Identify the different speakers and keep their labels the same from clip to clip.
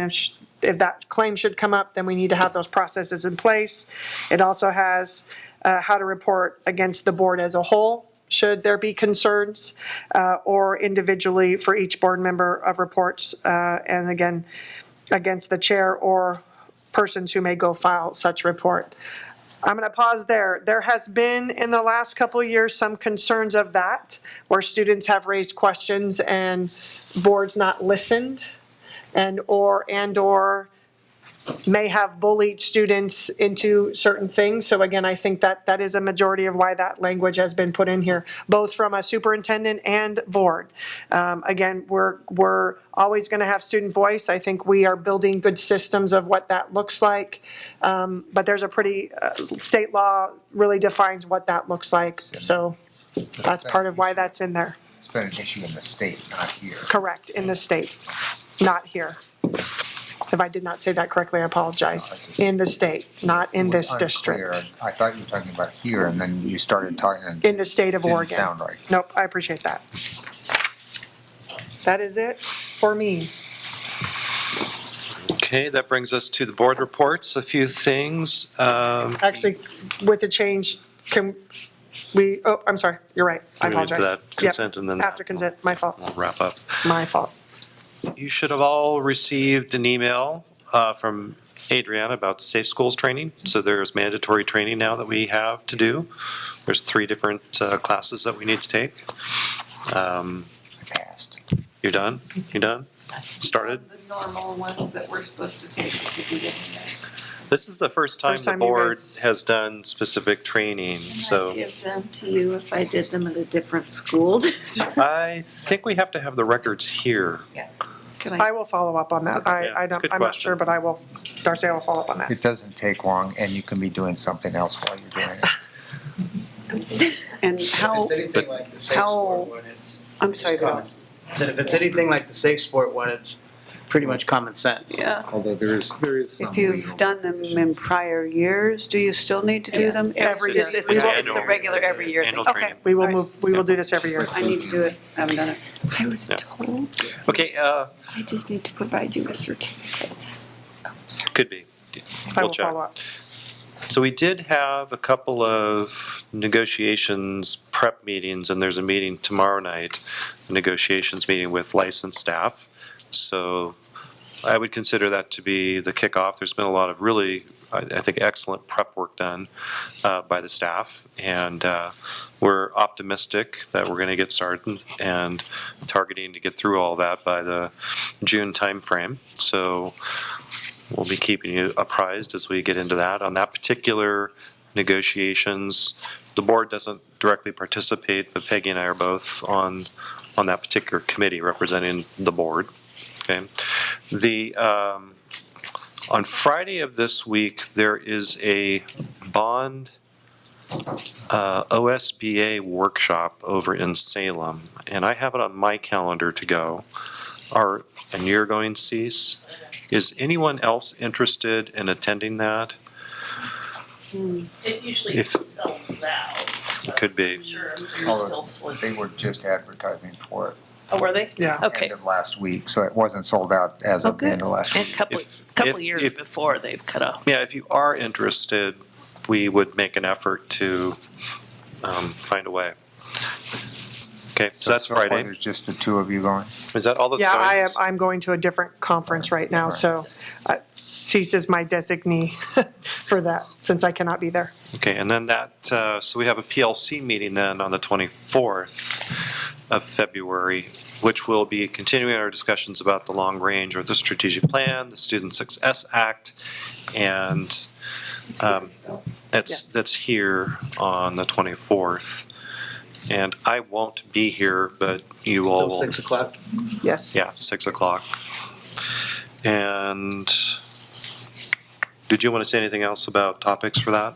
Speaker 1: And if, sh- if that claim should come up, then we need to have those processes in place. It also has uh, how to report against the board as a whole, should there be concerns, uh, or individually for each board member of reports, uh, and again, against the chair or persons who may go file such report. I'm going to pause there. There has been in the last couple of years some concerns of that, where students have raised questions and boards not listened and or and or may have bullied students into certain things. So again, I think that that is a majority of why that language has been put in here, both from a superintendent and board. Um, again, we're we're always going to have student voice. I think we are building good systems of what that looks like. Um, but there's a pretty uh, state law really defines what that looks like. So that's part of why that's in there.
Speaker 2: It's been an issue in the state, not here.
Speaker 1: Correct, in the state, not here. If I did not say that correctly, I apologize. In the state, not in
Speaker 2: It was
Speaker 1: this district,
Speaker 2: unclear. I thought you were talking about here, and then you started talking. and
Speaker 1: in the state of
Speaker 2: Didn't
Speaker 1: Oregon.
Speaker 2: sound right.
Speaker 1: Nope, I appreciate that. That is it for me.
Speaker 3: Okay, that brings us to the board reports, a few things. Um,
Speaker 1: Actually, with the change, can we, oh, I'm sorry, you're right, I
Speaker 3: We need
Speaker 1: apologize.
Speaker 3: that
Speaker 1: Yep,
Speaker 3: consent and then that.
Speaker 1: After consent, my fault,
Speaker 3: We'll wrap up.
Speaker 1: my fault.
Speaker 3: You should have all received an email uh, from Adriana about safe schools training. So there's mandatory training now that we have to do. There's three different uh, classes that we need to take. Um,
Speaker 2: Passed.
Speaker 3: You're done? You done? Started?
Speaker 4: The normal ones that we're supposed to take at the beginning.
Speaker 3: This is the first time
Speaker 1: First
Speaker 3: the
Speaker 1: time you
Speaker 3: board
Speaker 1: guys-
Speaker 3: has done specific training,
Speaker 4: I'd
Speaker 3: so.
Speaker 4: give them to you if I did them at a different school district.
Speaker 3: I think we have to have the records here.
Speaker 4: Can
Speaker 1: I
Speaker 4: I-
Speaker 1: will follow up on that, I,
Speaker 3: Yeah,
Speaker 1: I
Speaker 3: it's a
Speaker 1: don't,
Speaker 3: good
Speaker 1: I'm not sure,
Speaker 3: question.
Speaker 1: but I will, Darcy, I will follow up on that.
Speaker 2: It doesn't take long, and you can be doing something else while you're doing it.
Speaker 5: And how,
Speaker 6: If it's anything like the safe
Speaker 5: how-
Speaker 6: sport one, it's.
Speaker 5: I'm
Speaker 6: it's
Speaker 5: sorry, go
Speaker 6: common-
Speaker 5: on.
Speaker 6: Said if it's anything like the safe sport one, it's pretty much common sense.
Speaker 4: Yeah,
Speaker 2: Although there is, there is
Speaker 5: if you've done them in prior years, do you still need to
Speaker 4: Yeah.
Speaker 5: do them?
Speaker 1: Every
Speaker 5: It's-
Speaker 1: year.
Speaker 5: It's it's- it's the
Speaker 3: Annual.
Speaker 5: regular every year thing,
Speaker 3: Annual
Speaker 5: okay.
Speaker 3: training.
Speaker 1: We will
Speaker 5: All right.
Speaker 1: move, we will do this every year.
Speaker 5: I need to do it, I haven't done it.
Speaker 7: I was
Speaker 3: Yeah.
Speaker 7: told
Speaker 3: Okay, uh,
Speaker 7: I just need to provide you with certificates.
Speaker 3: could be.
Speaker 1: I
Speaker 3: We'll
Speaker 1: will
Speaker 3: check.
Speaker 1: follow up.
Speaker 3: So we did have a couple of negotiations prep meetings, and there's a meeting tomorrow night, a negotiations meeting with licensed staff. So I would consider that to be the kickoff. There's been a lot of really, I I think, excellent prep work done uh, by the staff, and uh, we're optimistic that we're going to get started and targeting to get through all that by the June timeframe. So We'll be keeping you apprised as we get into that. On that particular negotiations, the board doesn't directly participate, but Peggy and I are both on, on that particular committee representing the board. Okay? The, um, on Friday of this week, there is a bond uh, OSBA workshop over in Salem, and I have it on my calendar to go. Are, and you're going, Cease? Is anyone else interested in attending that?
Speaker 8: It usually
Speaker 3: If-
Speaker 8: sells out. so
Speaker 3: Could be.
Speaker 8: I'm Sure, you're
Speaker 2: Oh,
Speaker 8: still
Speaker 2: They
Speaker 8: soliciting.
Speaker 2: were just advertising for it.
Speaker 8: Oh, were they?
Speaker 1: Yeah.
Speaker 8: Okay.
Speaker 2: End of last week, so it wasn't sold out as
Speaker 5: Oh,
Speaker 2: of the
Speaker 5: good.
Speaker 2: end of last
Speaker 8: And a
Speaker 2: week.
Speaker 8: couple,
Speaker 3: If-
Speaker 8: couple
Speaker 3: if-
Speaker 8: years
Speaker 3: if-
Speaker 8: before they've cut off.
Speaker 3: Yeah, if you are interested, we would make an effort to um, find a way. Okay, so that's
Speaker 2: far,
Speaker 3: Friday.
Speaker 2: There's just the two of you going.
Speaker 3: Is that all that's
Speaker 1: Yeah,
Speaker 3: going?
Speaker 1: I am, I'm going to a different conference right now, so uh, Cease is my designee for that, since I cannot be there.
Speaker 3: Okay, and then that, uh, so we have a PLC meeting then on the 24th of February, which will be continuing our discussions about the long range or the strategic plan, the Student Success Act, and um,
Speaker 1: Yes.
Speaker 3: that's, that's here on the 24th. And I won't be here, but you all
Speaker 6: Still
Speaker 3: will.
Speaker 6: six o'clock.
Speaker 1: Yes.
Speaker 3: Yeah, 6 o'clock. And did you want to say anything else about topics for that?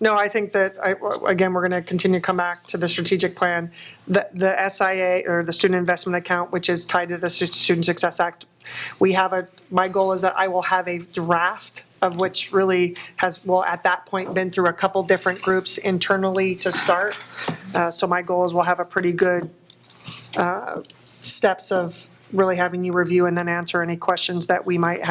Speaker 1: No, I think that, I- again, we're going to continue to come back to the strategic plan. The the SIA, or the Student Investment Account, which is tied to the Stu- Student Success Act, we have a, my goal is that I will have a draft of which really has, well, at that point, been through a couple different groups internally to start. Uh, So my goal is we'll have a pretty good uh, steps of really having you review and then answer any questions that we might have.